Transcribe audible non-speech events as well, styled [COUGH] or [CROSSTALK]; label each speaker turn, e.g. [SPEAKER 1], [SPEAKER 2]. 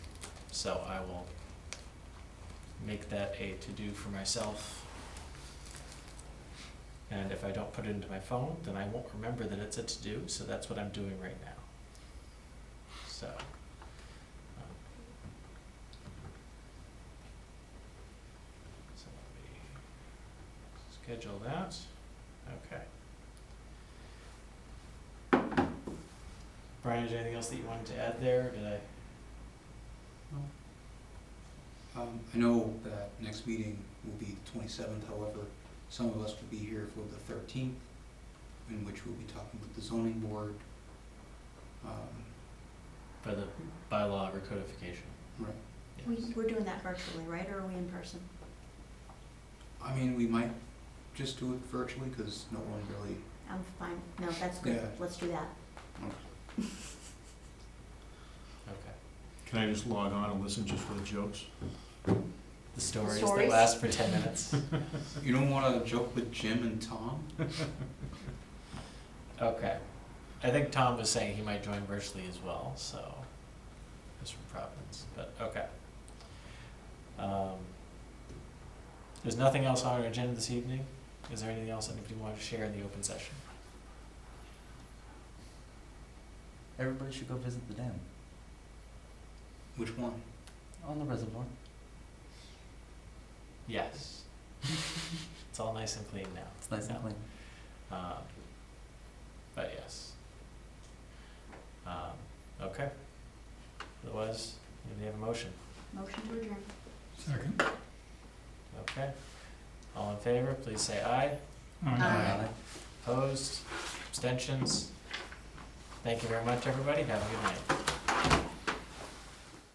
[SPEAKER 1] So I will make that a to-do for myself. And if I don't put it into my phone, then I won't remember that it's a to-do, so that's what I'm doing right now. So. um, So let me schedule that, okay. Brian, is there anything else that you wanted to add there, or did I?
[SPEAKER 2] Um, I know that next meeting will be the twenty-seventh, however, some of us will be here for the thirteenth, in which we'll be talking with the zoning board. Um,
[SPEAKER 1] For the bylaw recodification.
[SPEAKER 2] Right.
[SPEAKER 3] We,
[SPEAKER 1] Yes.
[SPEAKER 3] we're doing that virtually, right, or are we in person?
[SPEAKER 2] I mean, we might just do it virtually, because no one really,
[SPEAKER 3] I'm fine, no, that's good,
[SPEAKER 2] Yeah.
[SPEAKER 3] let's do that.
[SPEAKER 1] Okay.
[SPEAKER 4] Can I just log on and listen just for the jokes?
[SPEAKER 1] The stories that
[SPEAKER 3] stories?
[SPEAKER 1] last for ten minutes. [LAUGHS]
[SPEAKER 2] you don't wanna joke with Jim and Tom?
[SPEAKER 1] Okay. I think Tom was saying he might join virtually as well, so, just from Providence, but, okay. Um, There's nothing else on our agenda this evening? Is there anything else anybody wanted to share in the open session?
[SPEAKER 5] Everybody should go visit the dam
[SPEAKER 2] Which one?
[SPEAKER 5] on the reservoir. [LAUGHS]
[SPEAKER 1] Yes. It's all nice and clean now.
[SPEAKER 5] It's nice
[SPEAKER 1] No.
[SPEAKER 5] and clean.
[SPEAKER 1] Um, but yes. Um, okay. Otherwise, we have a motion.
[SPEAKER 3] Motion to adjourn.
[SPEAKER 4] Second.
[SPEAKER 1] Okay. All in favor, please say aye.
[SPEAKER 3] Aye.
[SPEAKER 1] Opposed? Abstentions? Thank you very much, everybody. Have a good night.